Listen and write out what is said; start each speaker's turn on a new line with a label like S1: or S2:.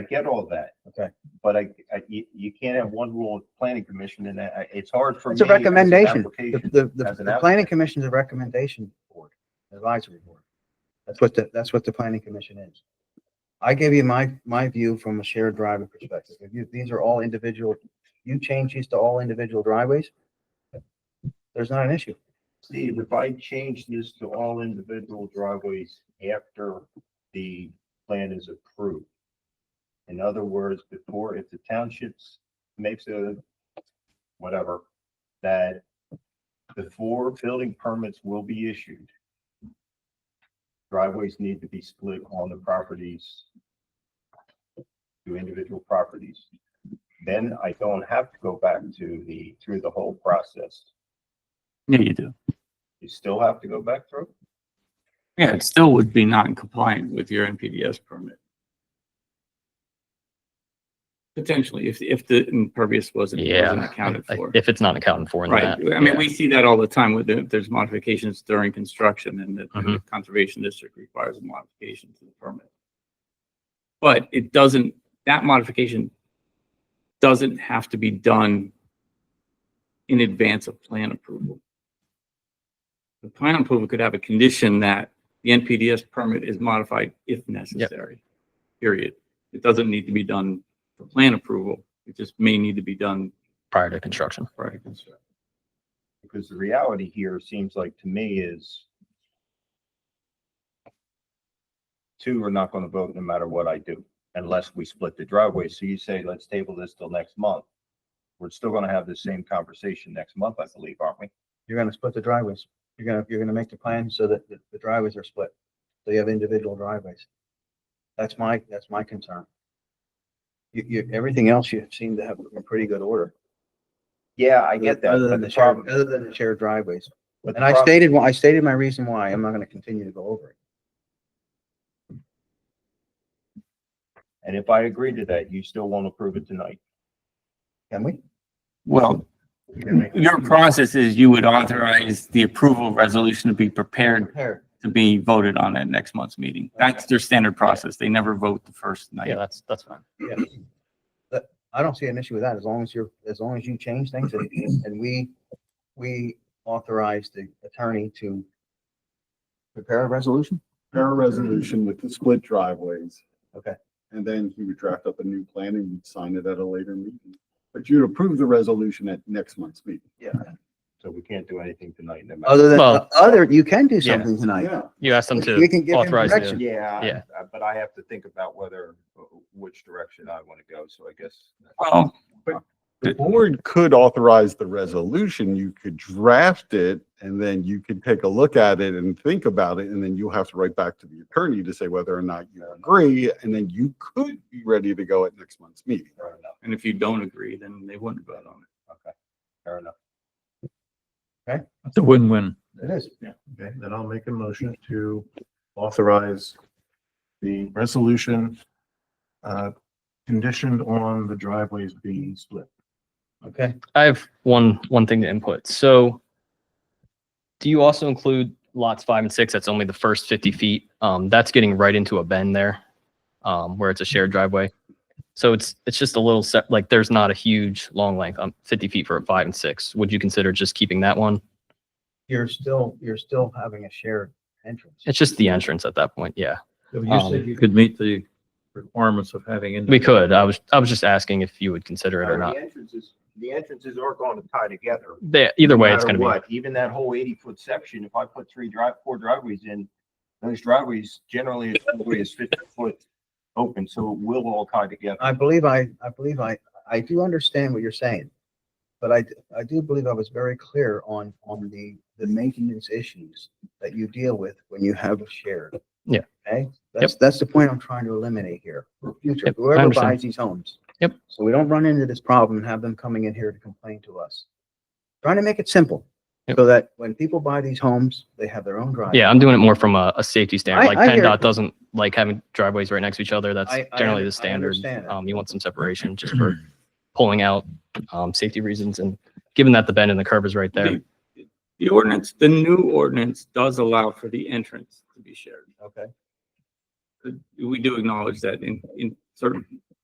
S1: I get all that.
S2: Okay.
S1: But I, I, you, you can't have one rule of planning commission and I, it's hard for me.
S2: It's a
S1: as an
S2: recommendation. The,
S1: application.
S2: the, the-
S1: as an
S2: the planning
S1: applicant.
S2: commission is a recommendation board, advisory board. That's what the, that's what the planning commission is. I give you my, my view from a shared driving perspective. If you, these are all individual, you change these to all individual driveways, there's not an issue.
S1: Steve, if I change this to all individual driveways after the plan is approved. In other words, before, if the townships makes a, whatever, that before building permits will be issued, driveways need to be split on the properties to individual properties. Then I don't have to go back to the, through the whole process.
S3: Yeah, you do.
S1: You still have to go back through?
S3: Yeah, it still would be non-compliant with your NPDS permit. Potentially, if, if the impervious wasn't, wasn't
S4: Yeah,
S3: accounted
S4: I-
S3: for.
S4: if it's not accounted for in
S3: Right.
S4: that.
S3: I mean,
S4: yeah.
S3: we see that all the time with, the- there's modifications during construction and the
S4: Mm-hmm.
S3: and the conservation district requires a modification to the permit. But it doesn't, that modification doesn't have to be done in advance of plan approval. The plan approval could have a condition that the NPDS permit is modified if necessary. Period. It doesn't need to be done for plan approval. It just may need to be done
S4: Prior to construction.
S3: prior to construction.
S1: Because the reality here seems like to me is two are not going to vote no matter what I do unless we split the driveway. So you say, let's table this till next month. We're still going to have the same conversation next month, I believe, aren't we?
S2: You're gonna split the driveways. You're gonna, you're gonna make the plan so that the the driveways are split. So you have individual driveways. That's my, that's my concern. You, you, everything else you seem to have in pretty good order.
S1: Yeah, I get that.
S2: Other
S1: but
S2: than
S1: the
S2: the shared,
S1: problem-
S2: other than the shared driveways.
S1: but the
S2: And I
S1: problem-
S2: stated, why I stated my reason why. I'm not gonna continue to go over it.
S1: And if I agree to that, you still won't approve it tonight.
S2: Can we?
S3: Well, Your process is you would authorize the approval resolution to be prepared
S2: Here.
S3: to be voted on at next month's meeting. That's their standard process. They never vote the first
S4: Yeah,
S3: night.
S4: that's, that's fine.
S2: I don't see an issue with that as long as you're, as long as you change things and, and we, we authorize the attorney to prepare a resolution.
S5: prepare a resolution with the split driveways.
S2: Okay.
S5: And then he would draft up a new plan and you'd sign it at a later meeting. But you'd approve the resolution at next month's meeting.
S1: So we can't do anything tonight. no matter-
S2: Other than,
S4: Well-
S2: other, you can do
S4: Yeah.
S2: something tonight.
S5: Yeah,
S4: You asked them
S2: We
S4: to
S2: can give him
S4: authorize
S2: direction.
S4: the,
S1: Yeah,
S4: Yeah.
S1: uh, but I have to think about whether, uh, which direction I want to go. So I guess
S3: Well,
S5: the board could authorize the resolution. You could draft it and then you could take a look at it and think about it. And then you'll have to write back to the attorney to say whether or not you agree. And then you could be ready to go at next month's meeting.
S1: fair enough.
S3: and if you don't agree, then they wouldn't vote on it.
S1: Okay, fair enough.
S6: It's a win-win.
S2: It is.
S7: Okay, then I'll make a motion to authorize the resolution uh, conditioned on the driveways being split.
S2: Okay.
S4: I have one, one thing to input. So do you also include lots five and six? That's only the first 50 feet. Um, that's getting right into a bend there, um, where it's a shared driveway. So it's, it's just a little set, like there's not a huge long length, um, 50 feet for a five and six. Would you consider just keeping that one?
S2: You're still, you're still having a shared entrance.
S4: It's just the entrance at that point. Yeah.
S6: You said you Um, could meet the requirements of having.
S4: We could. I was, I was just asking if you would consider it
S2: Oh,
S4: or not.
S1: The entrances, the entrances are going to tie together.
S4: They, either
S1: no
S4: way, it's
S1: matter
S4: going to be.
S1: what. Even that whole eighty foot section, if I put three drive, four driveways in, those driveways generally is always fifty foot open, so it will all tie together.
S2: I believe I, I believe I, I do understand what you're saying. But I, I do believe I was very clear on, on the, the maintenance issues that you deal with when you have a shared.
S4: Yeah.
S2: Okay, that's, that's the point I'm trying to eliminate here for future,
S4: Yep, I
S2: whoever
S4: understand.
S2: buys these homes.
S4: Yep.
S2: So we don't run into this problem and have them coming in here to complain to us. Trying to make it simple,
S4: Yep.
S2: so that when people buy these homes, they have their own driveway.
S4: Yeah, I'm doing it more from a, a
S2: I-
S4: safety standard. Like
S2: I hear
S4: PennDOT
S2: you.
S4: doesn't like having driveways right next to each other. That's
S2: I- I
S4: generally
S2: under- I
S4: the standard.
S2: understand that.
S4: Um, you want some separation just for pulling out, um, safety reasons and given that the bend in the curve is right there.
S3: The- The ordinance, the new ordinance does allow for the entrance to be shared.
S2: Okay,
S3: We do acknowledge that in, in certain